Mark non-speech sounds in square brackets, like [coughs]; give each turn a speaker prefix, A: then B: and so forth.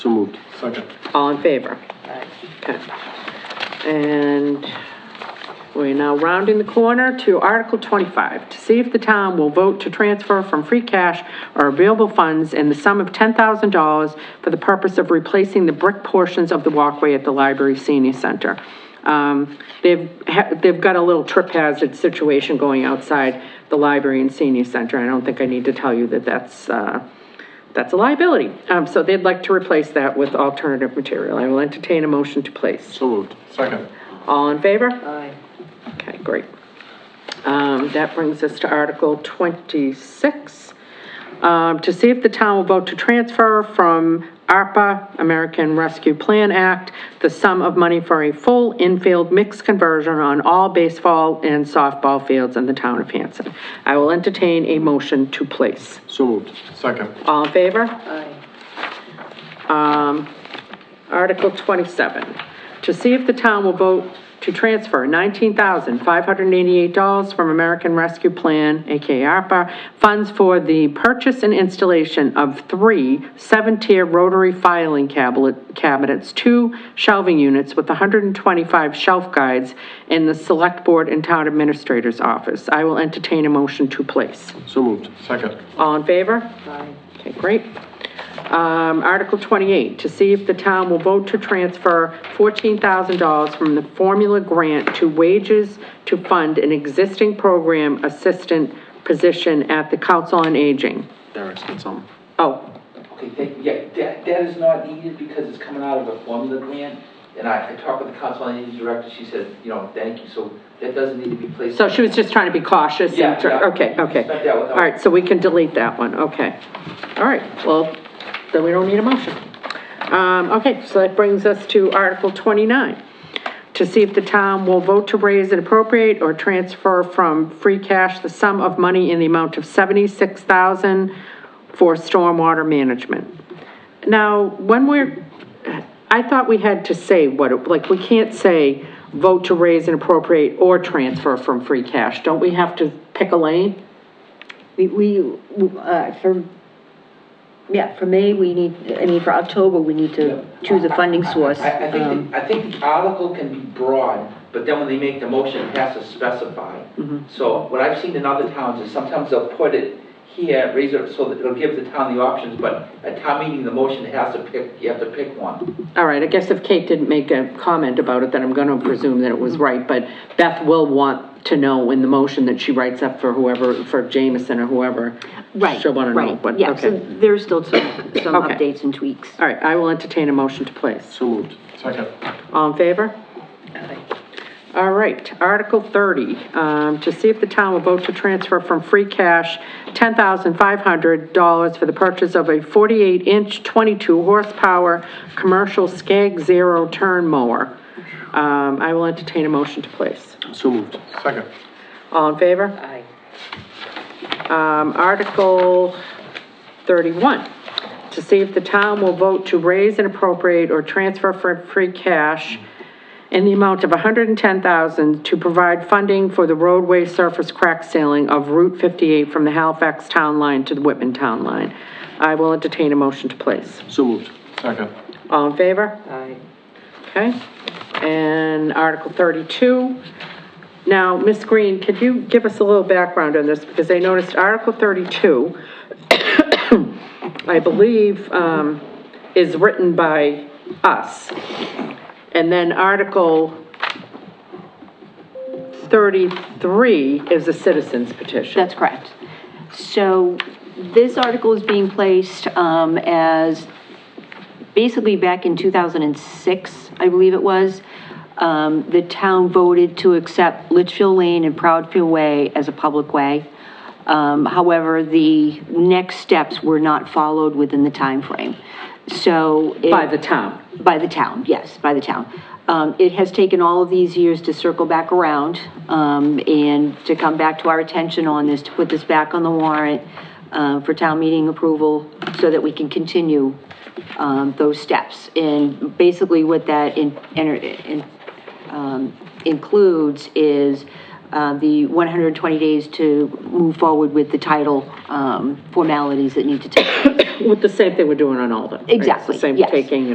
A: So moved.
B: Second.
C: All in favor? Okay. And we're now rounding the corner to Article 25, to see if the town will vote to transfer from free cash or available funds in the sum of $10,000 for the purpose of replacing the brick portions of the walkway at the library senior center. Um, They've, ha- they've got a little trip hazard situation going outside the library and senior center. I don't think I need to tell you that that's, uh, that's a liability. Um, so they'd like to replace that with alternative material. I will entertain a motion to place.
A: So moved.
B: Second.
C: All in favor?
D: Aye.
C: Okay, great. Um, that brings us to Article twenty-six. Um, to see if the town will vote to transfer from ARPA, American Rescue Plan Act, the sum of money for a full infield mix conversion on all baseball and softball fields in the town of Hanson. I will entertain a motion to place.
A: So moved.
B: Second.
C: All in favor?
D: Aye.
C: Um, Article 27, to see if the town will vote to transfer $19,588 from American Rescue Plan, AKA ARPA, funds for the purchase and installation of three seven-tier rotary filing cabinet- cabinets, two shelving units with 125 shelf guides in the Select Board and Town Administrator's Office. I will entertain a motion to place.
A: So moved.
B: Second.
C: All in favor?
D: Aye.
C: Okay, great. Um, Article 28, to see if the town will vote to transfer $14,000 from the formula grant to wages to fund an existing program assistant position at the Council on Aging.
A: Derek's got some.
C: Oh,
E: Okay, thank you. Yeah, that, that is not needed because it's coming out of a formula grant. And I, I talked with the council on aging director, she said, you know, thank you, so that doesn't need to be placed.
C: so she was just trying to be cautious. and
E: Yeah,
C: tr-
E: yeah.
C: Okay, okay.
E: Expect that one.
C: All right, so we can delete that one, okay. All right, well, then we don't need a motion. Um, okay, so that brings us to Article 29, to see if the town will vote to raise and appropriate or transfer from free cash the sum of money in the amount of 76,000 for stormwater management. Now, when we're, I thought we had to say what, it- like, we can't say vote to raise and appropriate or transfer from free cash. Don't we have to pick a lane?
D: We, we, uh, for, yeah, for May, we need, I mean, for October, we need to choose a funding source.
E: I, I
D: Um,
E: think, the- I think the article can be broad, but then when they make the motion, it has to specify.
D: Mm-hmm.
E: So what I've seen in other towns is sometimes they'll put it here, raise it, so that it'll give the town the options, but at town meeting, the motion has to pick, you have to pick one.
C: All right, I guess if Kate didn't make a comment about it, then I'm gonna presume that it was
F: Mm-hmm.
C: right, but Beth will want to know in the motion that she writes up for whoever, for Jameson or whoever.
F: Right,
C: She'll wanna know,
F: right,
C: but,
F: yeah, so
C: okay.
F: there's still some, some
C: Okay.
F: updates and tweaks.
C: All right, I will entertain a motion to place.
A: So moved.
B: Second.
C: All in favor? All right, Article 30, um, to see if the town will vote to transfer from free cash $10,500 for the purchase of a 48-inch, 22-horsepower, commercial Skag Zero turn mower. Um, I will entertain a motion to place.
A: So moved.
B: Second.
C: All in favor?
D: Aye.
C: Um, Article 31, to see if the town will vote to raise and appropriate or transfer for free cash in the amount of 110000 to provide funding for the roadway surface crack sealing of Route 58 from the Halifax Town Line to the Whitman Town Line. I will entertain a motion to place.
A: So moved.
B: Second.
C: All in favor?
D: Aye.
C: Okay, and Article 32. Now, Ms. Green, could you give us a little background on this? Because I noticed Article 32, [coughs] I believe, um, is written by us. And then Article 33 is a citizen's petition.
F: That's correct. So this article is being placed um, as, basically back in 2006, I believe it was, um, the town voted to accept Litchfield Lane and Proudfield Way as a public way. Um, However, the next steps were not followed within the timeframe. So. it-
C: By the town.
F: by the town, yes, by the town. Um, It has taken all of these years to circle back around um, and to come back to our attention on this, to put this back on the warrant uh, for town meeting approval so that we can continue um, those steps. And basically what that in- enter- in- um, includes is uh, the 120 days to move forward with the title um, formalities that need to take place.
C: With the same thing we're doing on Alden. right? It's the
F: Exactly,
C: Same
F: yes.
C: taking